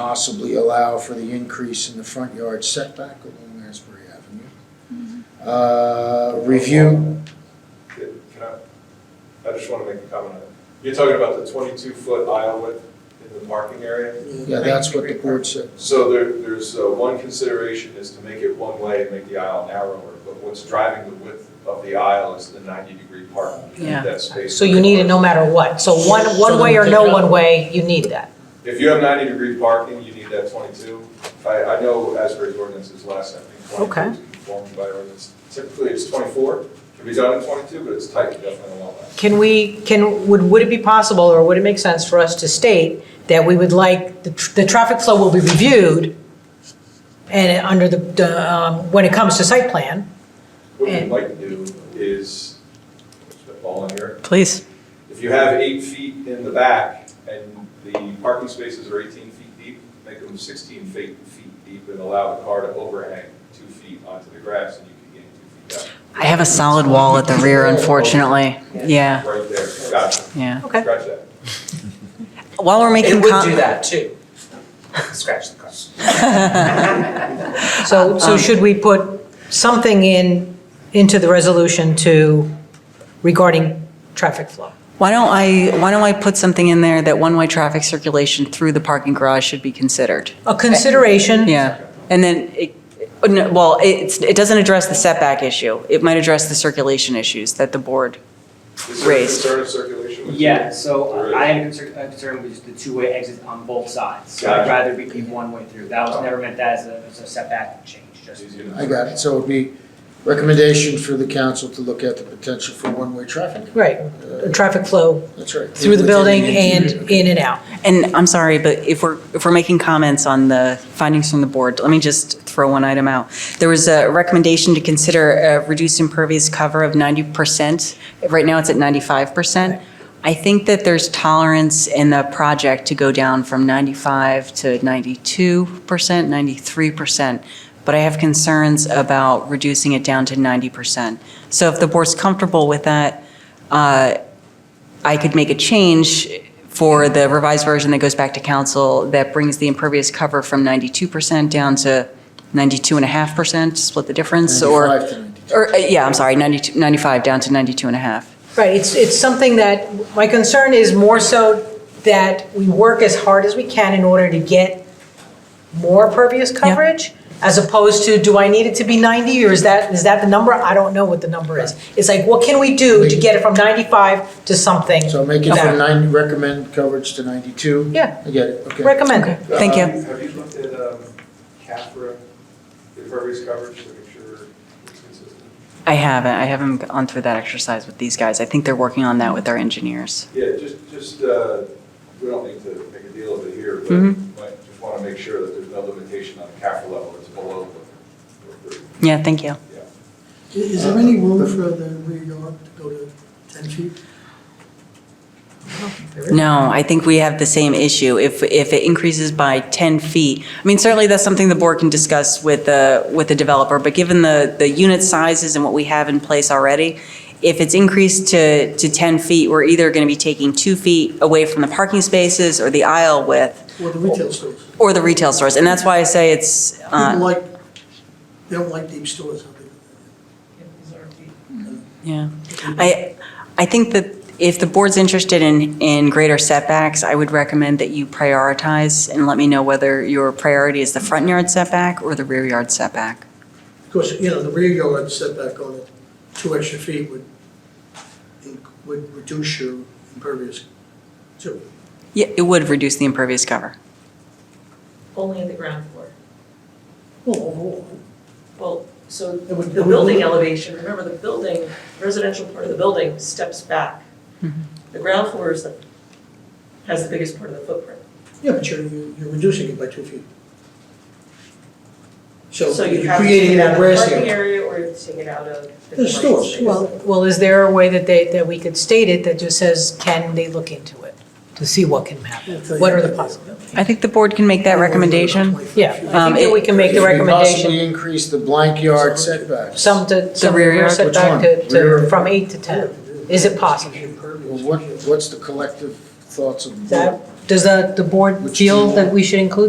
possibly allow for the increase in the front yard setback along Asbury Avenue. Uh, Review, Can I, I just want to make a comment on it. You're talking about the twenty-two foot aisle width in the parking area? yeah, that's what the board said. So there, there's, uh, one consideration is to make it one way and make the aisle narrower, but what's driving the width of the aisle is the ninety-degree parking. You need Yeah. That space. So you need it no matter what. So one, one way or no one way, you need that. If you have ninety-degree parking, you need that twenty-two. I, I know Asbury's ordinance is less, I think, Okay. twenty-two is conformed by ordinance. Typically, it's twenty-four, can be done in twenty-two, but it's tight, definitely a lot less. Can we, can, would, would it be possible or would it make sense for us to state that we would like, the, tr- the traffic flow will be reviewed and under the- the, um, when it comes to site plan? What we'd And- like to do is, put the ball in here, Please. if you have eight feet in the back and the parking spaces are eighteen feet deep, make them sixteen feet, feet deep and allow the car to overhang two feet onto the grass and you can gain two feet I have a solid wall at the rear, unfortunately. Yeah, out. Right there, gotcha, yeah. Okay. scratch that. While we're making. It would com- do that too. Scratch the car. So, so should we put something in, into the resolution to, regarding traffic flow? Why don't I, why don't I put something in there that one-way traffic circulation through the parking garage should be considered? A consideration? Yeah, and then, it- no, well, it's, it doesn't address the setback issue. It might address the circulation issues that the board, Is there a Raised. concern of circulation? with you? Yeah, so Right. I am concerned, I'm concerned with just the two-way exits on both sides. So Gotcha. I'd rather it be one way through. That was never meant that as a, as a setback change, It's just. easy enough. I got it, so it'd be recommendation for the council to look at the potential for one-way traffic. Right, Uh, traffic flow That's right. through the Within building and interior. in and out. and I'm sorry, but if we're, if we're making comments on the findings from the board, let me just throw one item out. There was a recommendation to consider uh, reduced impervious cover of 90%. Right now, it's at 95%. I think that there's tolerance in the project to go down from 95 to 92%, 93%, but I have concerns about reducing it down to 90%. So if the board's comfortable with that, uh, I could make a change for the revised version that goes back to council that brings the impervious cover from 92% down to 92.5%, split the difference, or... 95 to 92. Or, uh, yeah, I'm sorry, 92, 95 down to 92 and a half. Right, it's, it's something that, my concern is more so that we work as hard as we can in order to get more pervious coverage, as opposed to, do I need it to be 90, or is that, is that the number? I don't know what the number is. It's like, what can we do to get it from 95 to something? So make it Okay. from 90, recommend coverage to 92? Yeah. I get it, okay. Recommend Okay. it. Thank you. Um, Have you looked at, um, CAFRA, the impervious coverage, to make sure it's consistent? I haven't, I haven't gone through that exercise with these guys. I think they're working on that with our engineers. Yeah, just, just, uh, we don't need to make a deal of it here, but Mhm. might just want to make sure that there's no limitation on the capital level, it's below what we're approving. Yeah, thank you. Yeah. Is there Uh, any room for the rear yard to go to 10 feet? No, I think we have the same issue. If, if it increases by 10 feet, I mean, certainly that's something the board can discuss with the, with the developer, but given the, the unit sizes and what we have in place already, if it's increased to, to 10 feet, we're either going to be taking two feet away from the parking spaces or the aisle width, Or Oh. the retail stores? or the retail stores. And that's why I say it's, People uh, like, they don't like deep stores, I think. yeah. I, I think that if the board's interested in, in greater setbacks, I would recommend that you prioritize and let me know whether your priority is the front yard setback or the rear yard setback. Of course, you know, the rear yard setback on it, two extra feet would, would reduce your impervious too. Yeah, it would reduce the impervious cover. Only at the ground floor. Well, overall, Well, so It would- the building elevation, remember the building, residential part of the building steps back. Mm-hmm. The ground floor is the, has the biggest part of the footprint. yeah, but you're, you're reducing it by two feet. So So you you're have to take creating it out that of the grass parking area. area or you take it out of. The stores, commercial Well, space. well, is there a way that they, that we could state it that just says, can they look into it? To see what can happen? What are the possibilities? I think the board can make that recommendation. 25 feet. Yeah, I Um, think that it- we can make Should the we recommendation, Possibly increase the blank yard setback. some to, some rear rear yard? Which one? setback to, Rear- to, from eight to 10. Is it possible? Well, what, what's the collective thoughts of the board? That, does the, the board Which feel do you- that we should include